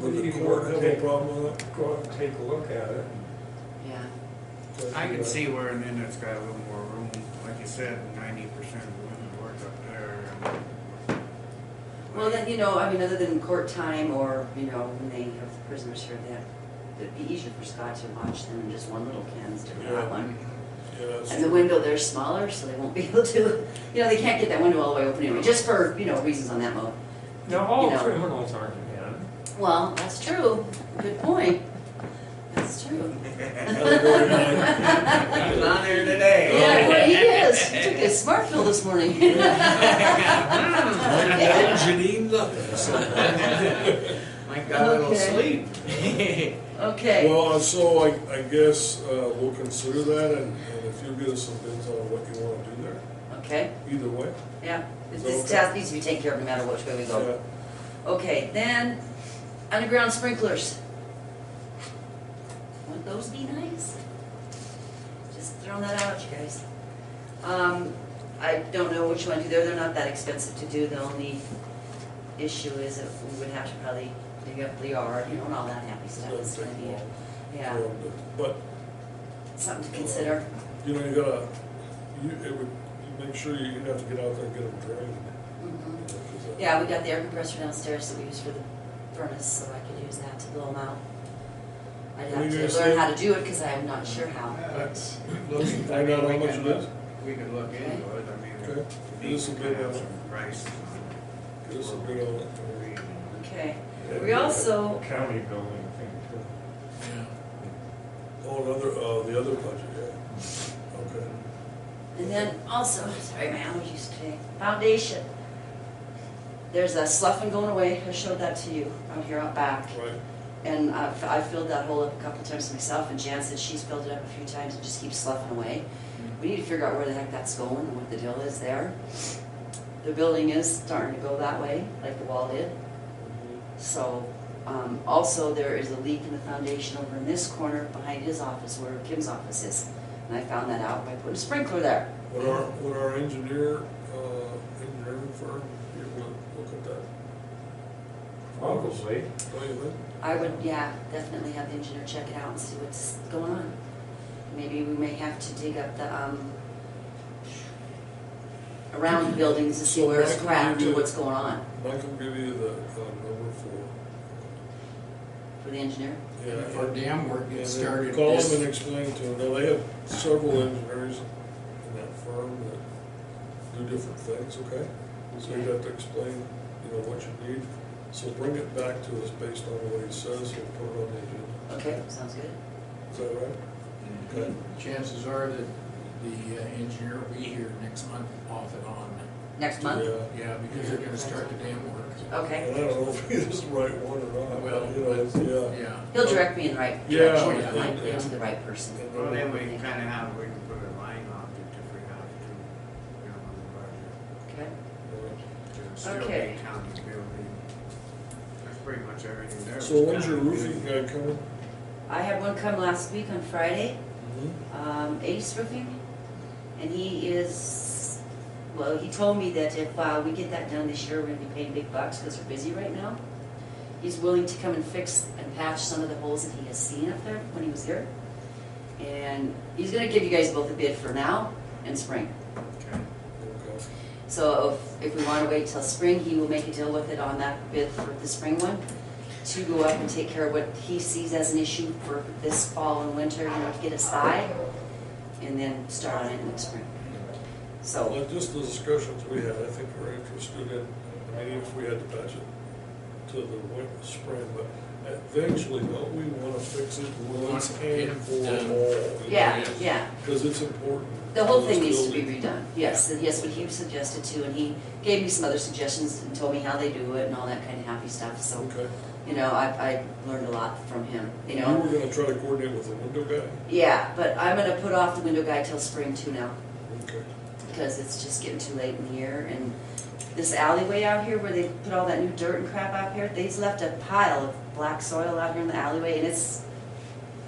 with the You court, I want to think. take- problem with it. Go out and take a look at it. yeah. but, I uh, can see where an inlet's got a little more room, like you said, ninety percent of the women work up there. and- Well, then, you know, I mean, other than court time or, you know, when they have prisoners here, that, it'd be easier for Scott to watch than just one little can instead of Yeah. that one. Yeah, that's And the window there's smaller, so they won't be able to, you know, they can't get that window all the way open anyway, just for, you know, reasons on that mode. Now, all you know. criminals aren't men. Well, that's true, good point, that's true. He's on there today. Yeah, boy, he is, He took his smart pill this morning. Mm. Like Janine nothing. Mike got a little Okay. sleep. Okay, Well, uh, so I, I guess, uh, we'll consider that and, and if you'll give us some bids on what you wanna do there, okay, either way. yeah, This- this task needs to be taken care of no matter which way we go. Yeah. Okay, then, underground sprinklers. Wouldn't those be nice? Just throwing that out, you guys. Um, I don't know which one to do, they're, they're not that expensive to do, the only issue is that we would have to probably dig up the yard, you know, and all that happy It's stuff, gonna it's take gonna a be, while. yeah, Um, But, uh, something to consider. you know, you gotta, you, it would, you make sure you have to get out there and get them drained. Mhm. you know, 'cause that- Yeah, we got the air compressor downstairs that we use for the furnace, so I could use that to blow them out. I'd Well, have you're to saying- learn how to do it, cause I'm not sure how. Let's look. Find out how much it is. We could look into it, I mean. Okay. we This will could be- have some prices on Give us a bid on it. it. Okay, we also, County building thing Oh, another, uh, the other budget, yeah. Okay. and then also, sorry, my allergies today, foundation. There's a sloughing going away, I showed that to you out here out back. Right. And I I filled that hole up a couple times myself, and Jan said she's filled it up a few times and just keeps sloughing away. We need to figure out where the heck that's going and what the deal is there. The building is starting to go that way, like the wall did. So, um, also there is a leak in the foundation over in this corner behind his office where Kim's office is. And I found that out by putting a sprinkler there. Would our, would our engineer, uh, engineering firm be able to look at that? too. Obviously. Don't you think? I would, yeah, definitely have the engineer check it out and see what's going on. Maybe we may have to dig up the, um, around the buildings to see So where it's Michael, cracked you- or what's going on Michael give you the, uh, number for. for the engineer. If our dam work Yeah, gets started, Call this, them and explain to them, now they have several engineers in that firm that do different things, okay? So you have to explain, you know, what you need, so bring it back to us based on what he says, and put it on the agenda, Okay, sounds good. is that right? Okay. chances are that the uh, engineer will be here next month off and on. Next month? Yeah. Yeah, because they're gonna start the dam work. Okay. And I don't know if he is the right one or not, Well, but, you know, it's- yeah. Yeah. He'll direct me in the right Yeah, direction, yeah, it might yeah. be to the right person. Well, then we kinda have, we can put a line off it if we have to, you know, on the budget. Okay. It'll still be Okay. county building. That's pretty much everything there. So was when's your county roofing building. guy coming? I had one come last week on Friday, Mm-hmm. um, Ace Roofing, and he is, well, he told me that if, uh, we get that done this year, we're gonna be paying big bucks, cause we're busy right now. He's willing to come and fix and patch some of the holes that he has seen up there when he was here. And he's gonna give you guys both a bid for now and spring. Okay. Okay. So if, if we wanna wait till spring, he will make a deal with it on that bid for the spring one, to go up and take care of what he sees as an issue for this fall and winter, you know, to get us by, and then start on it in the spring. So, Well, just the discussions we had, I think we're interested in, I mean, even if we had to patch it to the winter, spring, but eventually, don't we wanna fix it once and for all? yeah, yeah, Cause it's important. the whole for thing this needs to be building. redone, yes, and yes, what he suggested too, and he gave me some other suggestions and told me how they do it and all that kinda happy stuff, so, Okay. you know, I, I learned a lot from him, you You know? were gonna try to coordinate with the window guy? Yeah, but I'm gonna put off the window guy till spring too now. Okay. because it's just getting too late in the year and this alleyway out here where they put all that new dirt and crap out here, they've left a pile of black soil out here in the alleyway and it's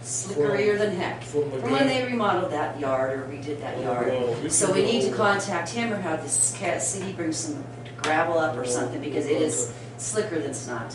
slickerier than heck. From the From when guy. they remodeled that yard or redid that Oh, yard. well, we So should we go need to over. contact him or have this cat city bring some gravel up or Well, something because it is slicker than snot.